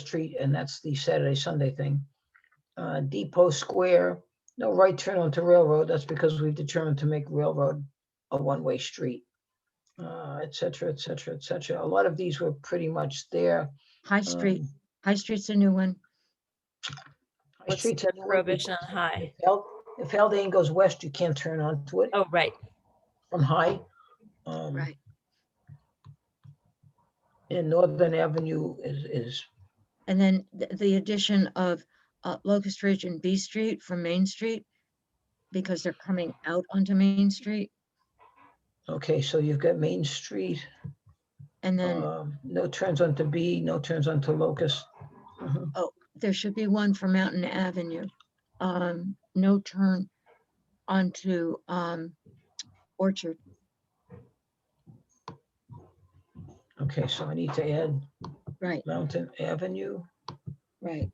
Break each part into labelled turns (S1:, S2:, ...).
S1: Street, and that's the Saturday, Sunday thing. Uh, Depot Square, no right turn onto Railroad, that's because we've determined to make Railroad a one-way street. Uh, et cetera, et cetera, et cetera. A lot of these were pretty much there. Um,
S2: High Street, High Street's a new one.
S1: High
S3: What's
S1: Street's
S3: the
S1: another one
S3: rubbish on
S1: because
S3: high?
S1: if Hald- If Haldane goes west, you can't turn onto it
S3: Oh, right.
S1: from High. Um,
S2: Right.
S1: And Northern Avenue is, is,
S2: And then th- the addition of uh, Locust Ridge and B Street from Main Street because they're coming out onto Main Street.
S1: okay, so you've got Main Street.
S2: And then
S1: um, No turns onto B, no turns onto Locust. Mhm.
S2: there should be one for Mountain Avenue. Um, no turn onto um, Orchard.
S1: Okay, so I need to add
S2: Right,
S1: Mountain Avenue.
S2: right.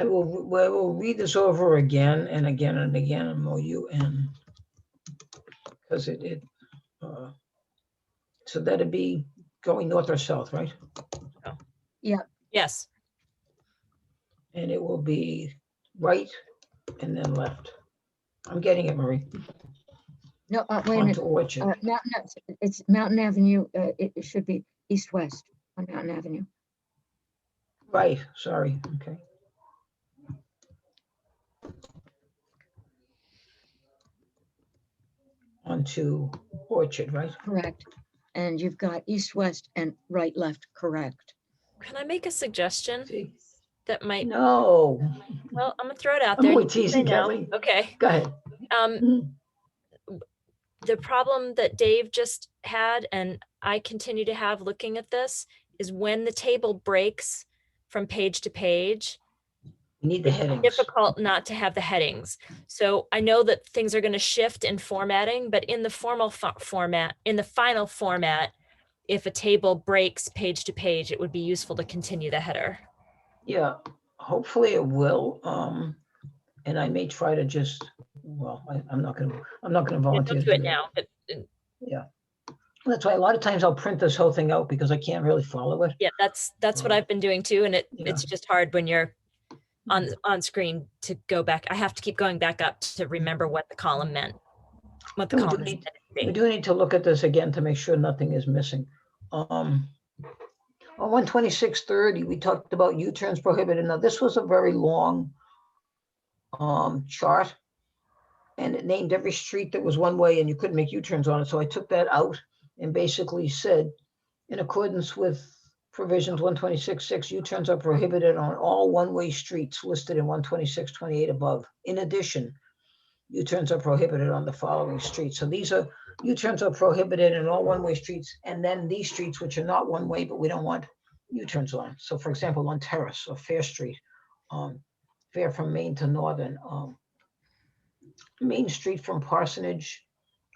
S1: I will, we will read this over again and again and again, M O U N. Because it, it, uh, so that'd be going north or south, right?
S3: Yes.
S1: And it will be right and then left. I'm getting it, Marie.
S2: No, uh, wait a minute.
S1: Onto Orchard.
S2: Uh, Mountain, Ave- it's Mountain Avenue, uh, it it should be east-west on Mountain Avenue.
S1: Right, sorry, okay. Onto Orchard, right?
S2: Correct. And you've got east, west, and right, left, correct.
S3: Can I make a suggestion
S1: See?
S3: that might,
S1: No,
S3: well, Mm-hmm. I'm gonna throw it out
S1: I'm
S3: there.
S1: only
S3: you say
S1: teasing,
S3: no.
S1: Kathleen.
S3: Okay.
S1: Go ahead.
S3: Um,
S1: Mhm.
S3: the problem that Dave just had and I continue to have looking at this is when the table breaks from page to page,
S1: We need the headings.
S3: difficult not to have the headings. So I know that things are going to shift in formatting, but in the formal fo- format, in the final format, if a table breaks page to page, it would be useful to continue the header.
S1: Yeah, hopefully it will. Um, and I may try to just, well, I, I'm not gonna, I'm not gonna
S3: Don't
S1: volunteer. to
S3: do it now, but uh,
S1: That's why a lot of times I'll print this whole thing out because I can't really follow it.
S3: yeah, that's, that's what
S1: Mm.
S3: I've been doing too. And it,
S1: Yeah.
S3: it's just hard when you're on, on screen to go back. I have to keep going back up to remember what the column meant. What the
S1: No, we do
S3: column is
S1: need-
S3: meant to
S1: We
S3: be.
S1: do need to look at this again to make sure nothing is missing. Um, on one twenty-six thirty, we talked about U-turns prohibited. Now, this was a very long um, chart. And it named every street that was one way and you couldn't make U-turns on it. So I took that out and basically said, in accordance with provisions one twenty-six six, U-turns are prohibited on all one-way streets listed in one twenty-six twenty-eight above. In addition, U-turns are prohibited on the following streets. So these are U-turns are prohibited in all one-way streets, and then these streets which are not one-way, but we don't want U-turns on. So for example, on Terrace or Fair Street, um, Fair from Main to Northern, um, Main Street from Parsonage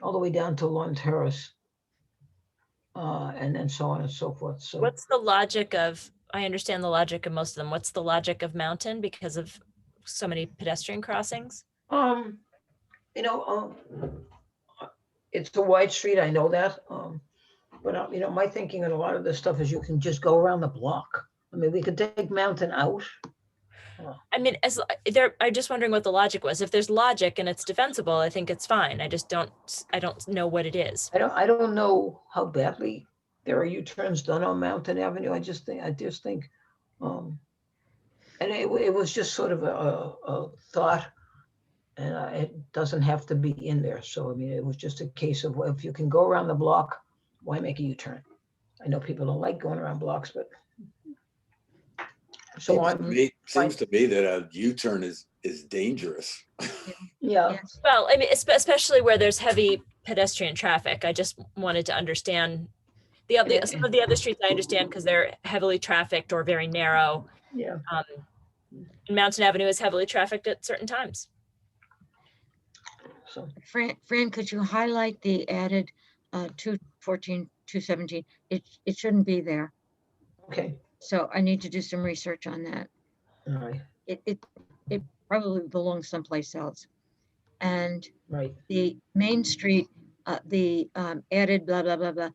S1: all the way down to Lawn Terrace. Uh, and then so on and so forth. So
S3: What's the logic of, I understand the logic of most of them. What's the logic of mountain because of so many pedestrian crossings?
S1: Um, you know, um, uh, it's a wide street, I know that, um, but, uh, you know, my thinking on a lot of this stuff is you can just go around the block. I mean, we could take Mountain out.
S3: I mean, as l- there, I'm just wondering what the logic was. If there's logic and it's defensible, I think it's fine. I just don't, s- I don't know what it is.
S1: I don't, I don't know how badly there are U-turns done on Mountain Avenue. I just think, I just think, um, and it, wa- it was just sort of a, a, a thought. And I- it doesn't have to be in there. So, I mean, it was just a case of, well, if you can go around the block, why make a U-turn? I know people don't like going around blocks, but. So
S4: Seems to
S1: I'm,
S4: me- Seems to me that a U-turn is, is dangerous.
S1: yeah,
S2: Yes.
S3: Well, I mean, espe- especially where there's heavy pedestrian traffic. I just wanted to understand the other,
S1: Yeah.
S3: some of the other streets I understand because they're heavily trafficked or very narrow.
S1: yeah.
S3: Um, and Mountain Avenue is heavily trafficked at certain times.
S1: So,
S2: Fran, Fran, could you highlight the added uh, 214, 217? It, it shouldn't be there.
S1: okay,
S2: So I need to do some research on that.
S1: all right,
S2: It, it, it probably belongs someplace else. And
S1: right.
S2: the Main Street uh, the um, added blah, blah, blah, blah.